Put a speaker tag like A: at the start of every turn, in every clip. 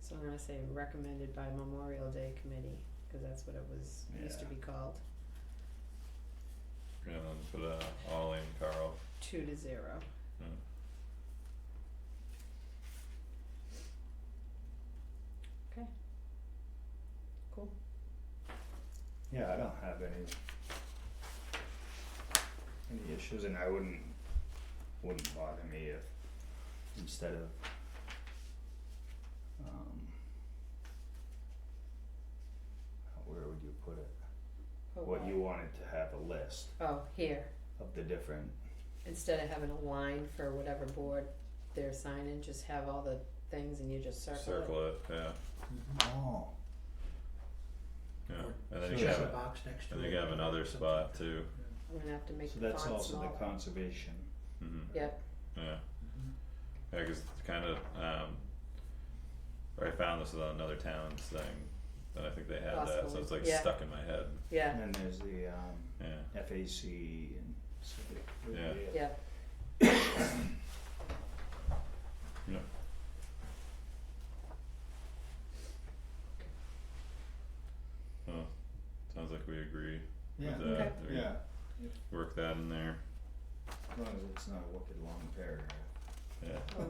A: So I'm gonna say recommended by Memorial Day Committee, cause that's what it was, used to
B: Yeah.
A: be called,
B: And then for the all in Carl,
A: two to zero.
B: Hmm.
A: Okay. Cool.
C: Yeah, I don't have any any issues and I wouldn't wouldn't bother me if instead of um where would you put it?
A: Put
C: What you wanted to have a list
A: Oh, here,
C: of the different
A: instead of having a line for whatever board they're signing, just have all the things and you just circle it.
B: circle it, yeah,
C: Oh.
B: yeah, and then you
C: Sure.
B: can have,
C: Sure.
D: a
B: it-
D: box next to
B: and
D: it.
B: then you can have another spot too,
A: I'm gonna have to make
C: So
A: the
C: that's
A: font
C: also
A: smaller.
C: the conservation.
B: mhm,
A: Yep,
B: yeah,
D: Mhm.
B: yeah, cause it's kinda, um, or I found this on another town's thing, and I think they had that, so
A: Possibly,
B: it's like
A: yeah.
B: stuck in my head,
A: yeah,
C: And then there's the um
B: yeah,
C: FAC and civic.
B: Yeah.
A: yeah,
B: yeah, Huh, sounds like we agree, With
C: Yeah,
B: that,
A: Okay.
B: there you-
C: yeah,
B: work that in there,
C: as long as it's not a wicked long paragraph.
B: yeah,
A: Well,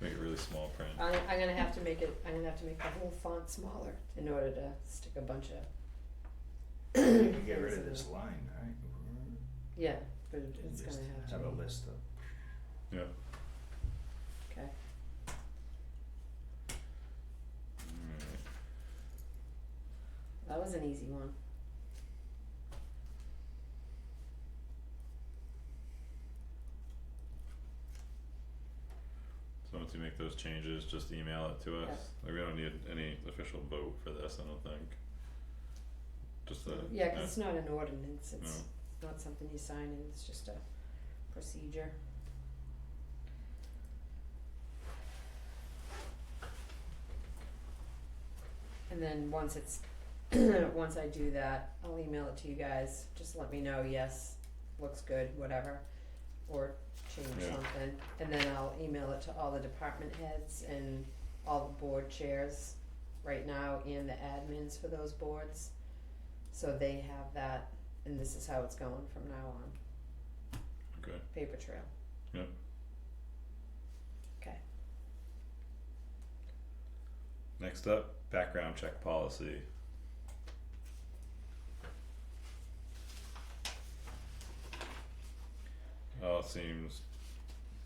B: make it really small print,
A: I I'm gonna have to make it, I'm gonna have to make the whole font smaller in order to stick a bunch of
C: You can get rid of this line, right?
A: Yeah, but it-
C: And
A: it's
C: just
A: gonna have to.
C: Have a
A: be-
C: list of,
B: yeah.
A: Okay,
B: Alright.
A: that was an easy one.
B: So once you make those changes, just email it to us, like we don't need any official vote for this, I don't think. Just the,
A: Yeah, 'cause
B: yeah,
A: it's not an ordinance, it's
B: No.
A: it's not something you sign and it's just a procedure. And then once it's, once I do that, I'll email it to you guys, just let me know, yes, looks good, whatever, or change
B: Yeah.
A: something. And then I'll email it to all the department heads and all the board chairs right now and the admins for those boards. So they have that, and this is how it's going from now on,
B: okay,
A: paper trail.
B: Yep.
A: Okay,
B: next up, background check policy, all Oh, seems,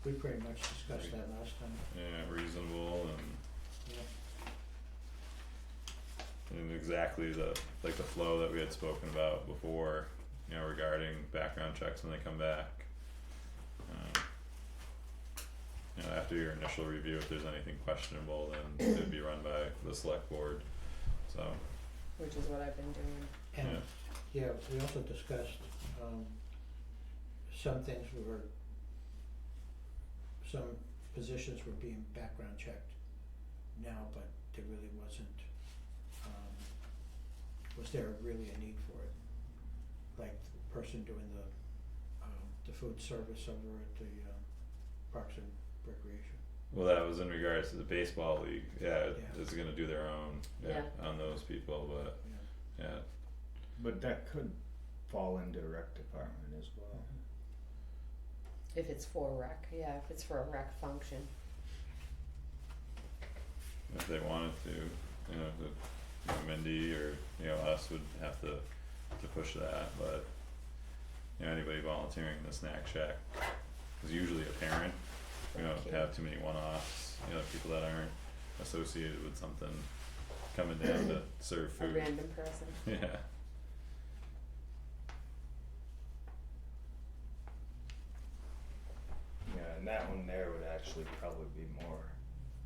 D: We pretty much discussed that last time,
B: yeah, reasonable and,
D: yeah.
B: and exactly the, like the flow that we had spoken about before, you know, regarding background checks when they come back. Um, you know, after your initial review, if there's anything questionable, then it'd be run by the select board, so,
A: which is what I've been doing.
B: yeah,
D: And, yeah, we also discussed, um, some things were, some positions were being background checked now, but there really wasn't, um, was there really a need for it? Like the person doing the, um, the food service over at the, um, Parks and Recreation.
B: well, that was in regards to the baseball league, yeah, it-
D: Yeah.
B: it's gonna do their own, yeah, on those people, but,
D: Yeah.
B: yeah,
C: but that could fall into rec department as well.
A: If it's for rec, yeah, if it's for a rec function,
B: if they wanted to, you know, the, you know, Mindy or, you know, us would have to, to push that, but. You know, anybody volunteering in the snack shack is usually a parent, we don't
A: Thank you.
B: have too many one-offs, you know, people that aren't associated with something coming down to serve
A: a
B: food.
A: random person.
B: Yeah.
C: Yeah, and that one there would actually probably be more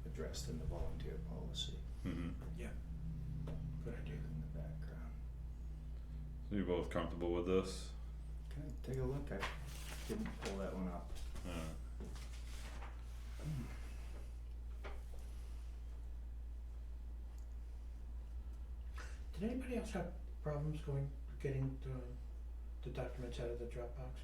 C: addressed in the volunteer policy
B: Mm-hmm.
D: Good idea.
C: in the background.
B: So you both comfortable with this?
C: Okay, take a look, I didn't pull that one up.
B: Uh,
D: Did anybody else have problems going, getting the, the documents out of the Dropbox?